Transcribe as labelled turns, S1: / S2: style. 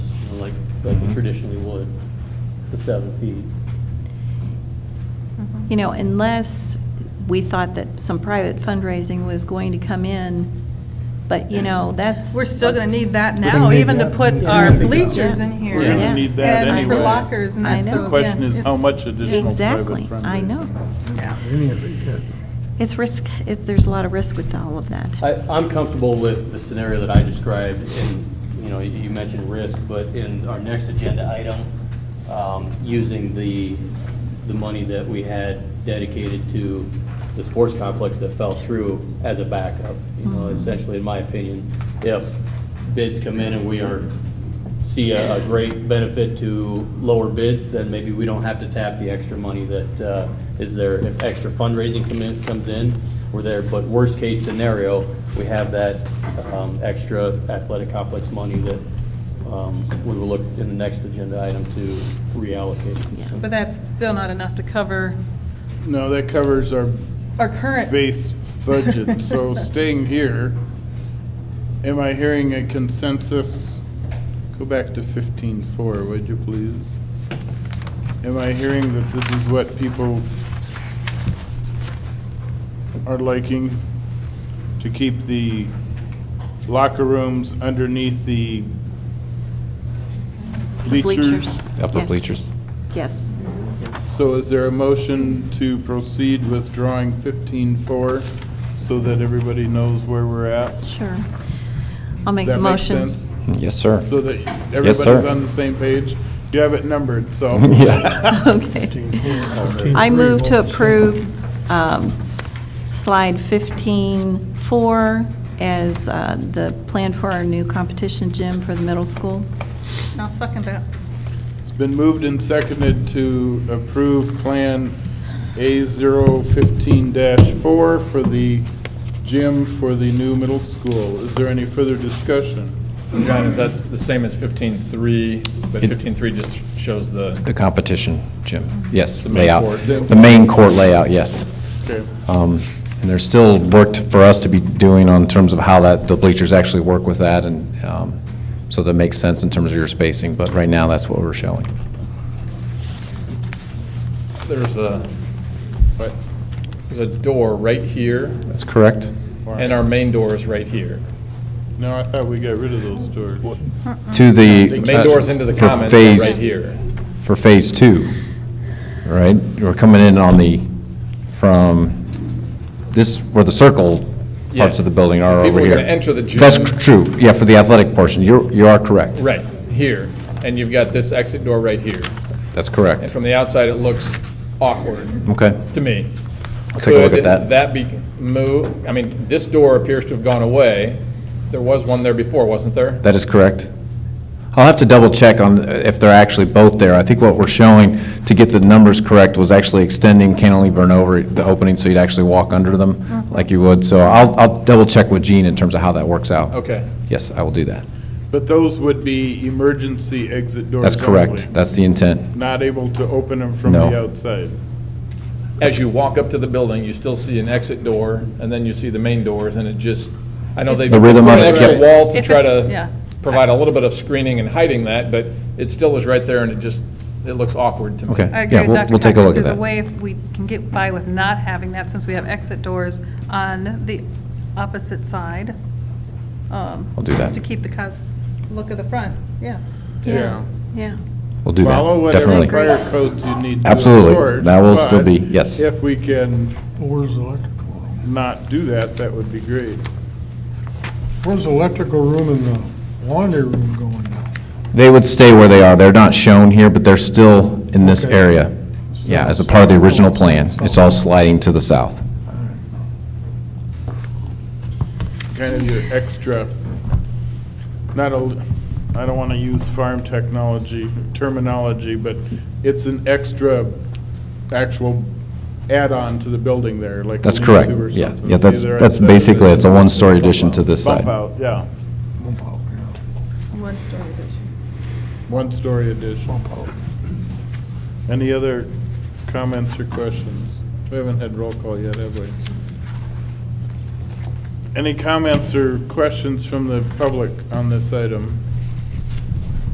S1: like we traditionally would, the seven feet.
S2: You know, unless we thought that some private fundraising was going to come in, but, you know, that's.
S3: We're still going to need that
S4: We're
S3: now,
S4: gonna need
S3: even to
S4: that.
S3: put
S4: Yeah.
S3: our
S1: Yeah.
S3: bleachers in here.
S4: We're
S2: Yeah.
S4: gonna need that
S3: And
S4: anyway.
S3: for lockers and
S2: I
S3: that,
S2: know.
S3: so,
S4: The question
S3: yeah,
S4: is how
S3: it's-
S4: much additional private fundraising?
S2: Exactly, I know.
S3: yeah.
S4: Any of it, yeah.
S2: It's risk, it, there's a lot of risk with all of that.
S1: I, I'm comfortable with the scenario that I described, and, you know, you mentioned risk, but in our next agenda item, um, using the, the money that we had dedicated to the sports complex that fell through as a backup, you know, essentially, in my opinion, if bids come in and we are, see a, a great benefit to lower bids, then maybe we don't have to tap the extra money that uh, is there. If extra fundraising come in, comes in, we're there. But worst case scenario, we have that um, extra athletic complex money that um, we will look in the next agenda item to reallocate.
S3: But that's still not enough to cover
S4: No, that covers our
S3: our current.
S4: base budget, so staying here, am I hearing a consensus? Go back to fifteen-four, would you please? Am I hearing that this is what people are liking? To keep the locker rooms underneath the bleachers?
S5: Up the
S2: Yes.
S5: bleachers.
S2: Yes.
S4: So is there a motion to proceed with drawing fifteen-four so that everybody knows where we're at?
S2: Sure. I'll make
S4: That
S2: the
S4: makes
S2: motion.
S4: sense?
S5: Yes, sir.
S4: So that everybody's
S5: sir.
S4: on the same page? You have it numbered, so.
S5: Yeah.
S2: Okay. I move to approve um, slide 15-4 as uh, the plan for our new competition gym for the middle school.
S3: I'll second that.
S4: It's been moved and seconded to approve Plan A015-4 for the gym for the new middle school. Is there any further discussion?
S6: John, is that the same as 15.3, but
S5: It-
S6: 15.3 just shows
S5: The
S6: the,
S5: competition gym, yes,
S6: The main
S5: layout.
S6: court.
S5: The main court layout, yes.
S4: Okay.
S5: Um, And there's still work to- for us to be doing on terms of how that, the bleachers actually work with that, and um, so that makes sense in terms of your spacing, but right now, that's what we're showing.
S6: there's a, but there's a door right here,
S5: That's correct?
S6: and our main door is right here.
S4: No, I thought we got rid of those doors.
S5: To the. uh,
S6: The main door's into the
S5: for
S6: commons are right
S5: phase-
S6: here.
S5: For Phase Two, right? We're coming in on the, from this, where the circle parts
S6: Yeah.
S5: of the building are over here.
S6: People are gonna enter the gym.
S5: That's cr- true, yeah, for the athletic portion, you're, you are correct.
S6: Right, here. And you've got this exit door right here.
S5: That's
S6: And
S5: correct.
S6: from the outside, it looks awkward
S5: Okay,
S6: to me.
S5: I'll take a look
S6: Could
S5: at that.
S6: that be moved? I mean, this door appears to have gone away. There was one there before, wasn't there?
S5: that is correct. I'll have to double check on if they're actually both there. I think what we're showing, to get the numbers correct, was actually extending cantilever and over the opening, so you'd actually walk under them like you would. So I'll, I'll double check with Gene in terms of how that works out.
S6: Okay.
S5: Yes, I will do that.
S4: But those would be emergency exit doors
S5: That's
S4: only.
S5: correct. That's the intent.
S4: Not able to open them from
S5: No.
S4: the outside.
S6: As you walk up to the building, you still see an exit door, and then you see the main doors, and it just, I know they.
S5: The rhythm
S6: put
S5: of
S6: an
S5: it,
S6: extra
S5: yep.
S6: wall to
S3: If
S6: try
S3: it's- yeah.
S6: to provide a little bit of screening and hiding that, but it still is right there, and it just, it looks awkward to me.
S5: Okay.
S3: I agree
S5: Yeah,
S3: with
S5: we'll-
S3: Dr.
S5: we'll take a
S3: Cox.
S5: look at
S3: There's a
S5: that.
S3: way if we can get by with not having that, since we have exit doors on the opposite side. I'll
S5: I'll do that.
S3: To keep the cos, look at the front, yes.
S4: Yeah.
S2: Yeah.
S5: We'll do
S4: Follow
S5: that,
S4: whatever
S5: definitely.
S4: fire codes you need to.
S5: Absolutely.
S4: enforce,
S5: That will still be-
S4: but
S5: yes.
S4: If we can
S7: Where's the electrical room?
S4: not do that, that would be great.
S7: Where's the electrical room and the laundry room going now?
S5: They would stay where they are. They're not shown here, but they're still in this
S7: Okay.
S5: area. Yeah, as a part of the original plan. It's all sliding to the south.
S4: Kind of your extra, not a, I don't want to use farm technology terminology, but it's an extra actual add-on to the building there, like.
S5: That's
S4: a
S5: correct.
S4: lean-to or
S5: Yeah.
S4: something.
S5: Yeah, that's-
S4: Either
S5: that's
S4: outside of
S5: basically-
S4: it
S5: it's a
S4: or
S5: one-story
S4: bump
S5: addition to
S4: out.
S5: this side.
S4: Bump out, yeah,
S7: Bump out, yeah,
S3: One story addition.
S4: one-story addition.
S7: bump out.
S4: Any other comments or questions? We haven't had roll call yet, have we? Any comments or questions from the public on this item?